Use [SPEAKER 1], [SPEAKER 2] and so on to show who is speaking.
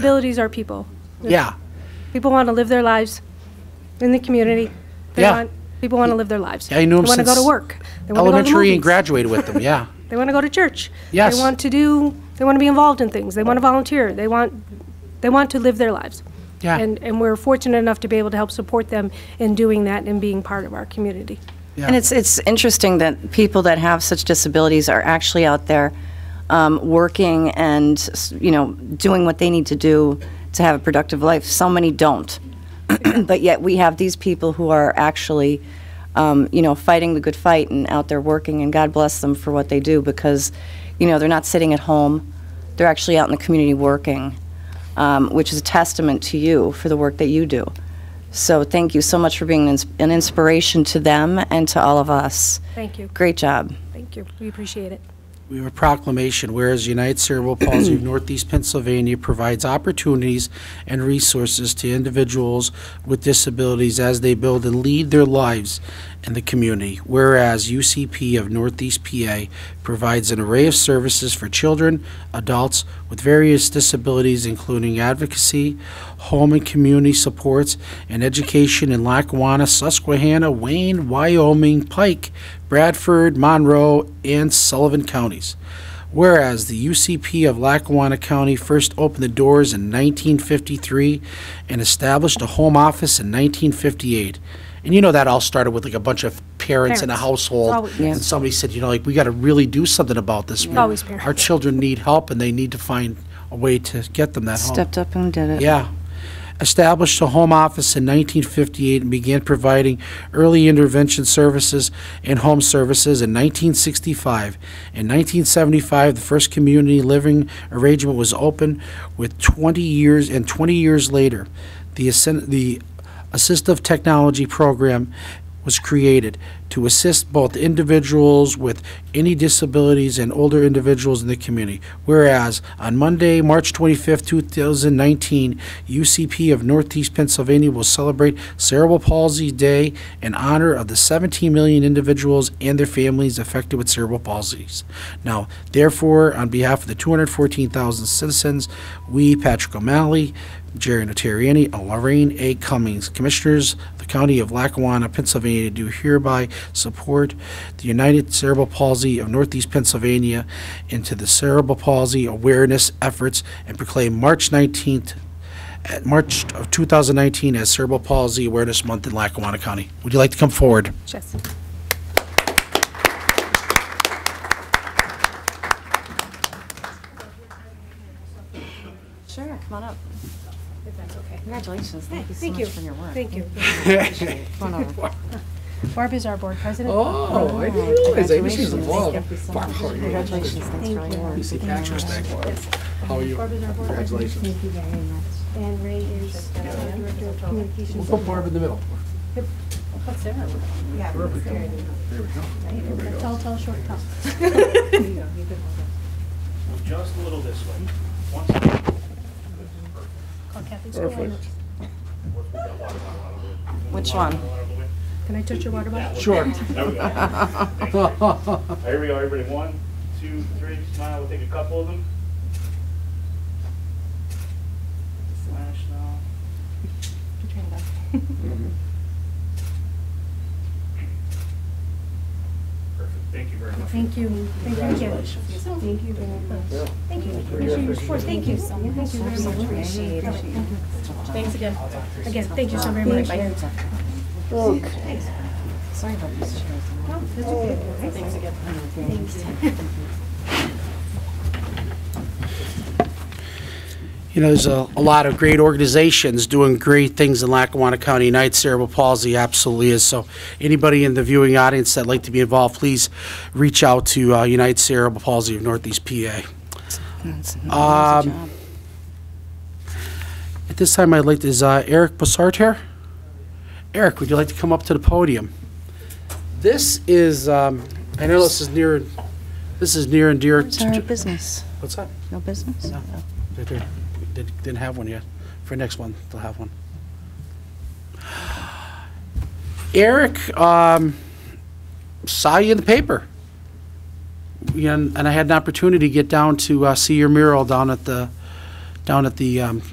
[SPEAKER 1] Disabilities are people.
[SPEAKER 2] Yeah,
[SPEAKER 1] People want to live their lives in the community. They
[SPEAKER 2] Yeah.
[SPEAKER 1] want- People want to live their lives.
[SPEAKER 2] Yeah, I knew 'em
[SPEAKER 1] They want to go to
[SPEAKER 2] since
[SPEAKER 1] work. They wanna go to
[SPEAKER 2] elementary and
[SPEAKER 1] movies.
[SPEAKER 2] graduated with them, yeah.
[SPEAKER 1] They want to go to church.
[SPEAKER 2] Yes.
[SPEAKER 1] They want to do, they want to be involved in things. They want to volunteer. They want, they want to live their lives.
[SPEAKER 2] Yeah.
[SPEAKER 1] And, and we're fortunate enough to be able to help support them in doing that and being part of our community.
[SPEAKER 2] Yeah.
[SPEAKER 3] And it's, it's interesting that people that have such disabilities are actually out there um, working and, s- you know, doing what they need to do to have a productive life. So many don't. But yet we have these people who are actually, um, you know, fighting the good fight and out there working, and God bless them for what they do because, you know, they're not sitting at home. They're actually out in the community working, um, which is a testament to you for the work that you do. So thank you so much for being an ins- an inspiration to them and to all of us.
[SPEAKER 1] Thank you.
[SPEAKER 3] Great job.
[SPEAKER 1] Thank you. We appreciate it.
[SPEAKER 2] We have a proclamation, whereas United Cerebral Palsy of Northeast Pennsylvania provides opportunities and resources to individuals with disabilities as they build and lead their lives in the community, whereas UCP of Northeast PA provides an array of services for children, adults with various disabilities, including advocacy, home and community supports, and education in Lackawanna, Susquehanna, Wayne, Wyoming, Pike, Bradford, Monroe, and Sullivan counties. Whereas the UCP of Lackawanna County first opened the doors in 1953 and established a home office in 1958. And you know that all started with like a bunch of parents in a
[SPEAKER 1] Parents.
[SPEAKER 2] household.
[SPEAKER 1] Always. Yeah.
[SPEAKER 2] And somebody said, you know, like, we got to really do something about this. We-
[SPEAKER 1] Always parents.
[SPEAKER 2] Our children need help and they need to find a way to get them that help.
[SPEAKER 3] Stepped up and did it.
[SPEAKER 2] Yeah. Established a home office in 1958 and began providing early intervention services and home services in 1965. In 1975, the first community living arrangement was opened with 20 years, and 20 years later, the, assin- the assistive technology program was created to assist both individuals with any disabilities and older individuals in the community. Whereas on Monday, March 25th, 2019, UCP of Northeast Pennsylvania will celebrate Cerebral Palsy Day in honor of the 17 million individuals and their families affected with cerebral palsies. Now, therefore, on behalf of the 214,000 citizens, we, Patrick O'Malley, Jerry Notarianni and Lorraine A. Cummings, Commissioners of the County of Lackawanna, Pennsylvania, do hereby support the United Cerebral Palsy of Northeast Pennsylvania into the cerebral palsy awareness efforts and proclaim March 19th, at March of 2019 as Cerebral Palsy Awareness Month in Lackawanna County. Would you like to come forward?
[SPEAKER 1] Yes.
[SPEAKER 3] Sure, come on up. Congratulations. Thank you so
[SPEAKER 1] Thank you.
[SPEAKER 3] much for your work.
[SPEAKER 1] Thank you.
[SPEAKER 3] Come on over.
[SPEAKER 1] Barb is our board president.
[SPEAKER 2] Oh, I didn't realize. I guess she's involved. Congratulations.
[SPEAKER 3] Thanks for all your work.
[SPEAKER 2] How are you? Congratulations.
[SPEAKER 4] Thank you very much. And Ray is uh, Director of Communications.
[SPEAKER 2] Put Barb in the middle.
[SPEAKER 4] Tall, tall, short, tall.
[SPEAKER 5] just a little this way. Once again,
[SPEAKER 3] Which one?
[SPEAKER 1] Can I touch your water bottle?
[SPEAKER 2] Sure.
[SPEAKER 5] there we go. Here we go, everybody. One, two, three, smile. We'll take a couple of them. Flash now. Perfect. Thank you very much.
[SPEAKER 4] Thank you. Thank you. Thank you very much. Thank you. Appreciate your support. Thank you. Thank you very much. Appreciate it.
[SPEAKER 1] Thanks again. Again, thank you so very much.
[SPEAKER 3] Sorry about these chairs. Things that get-
[SPEAKER 2] You know, there's a, a lot of great organizations doing great things in Lackawanna County. United Cerebral Palsy absolutely is. So, anybody in the viewing audience that'd like to be involved, please reach out to uh, United Cerebral Palsy of Northeast PA.
[SPEAKER 3] That's- that's a
[SPEAKER 2] Um,
[SPEAKER 3] job.
[SPEAKER 2] At this time, I'd like to, is uh, Eric Bussard here? Eric, would you like to come up to the podium? This is, um, I know this is near, this is near and dear.
[SPEAKER 3] It's
[SPEAKER 2] to-
[SPEAKER 3] our
[SPEAKER 2] to-
[SPEAKER 3] business.
[SPEAKER 2] What's that?
[SPEAKER 3] No business?
[SPEAKER 2] No. They did- they Didn't have one yet. For next one, they'll have one. Eric, um, saw you in the paper. You know, And and I had an opportunity to get down to uh, see your mural down at the down at the um,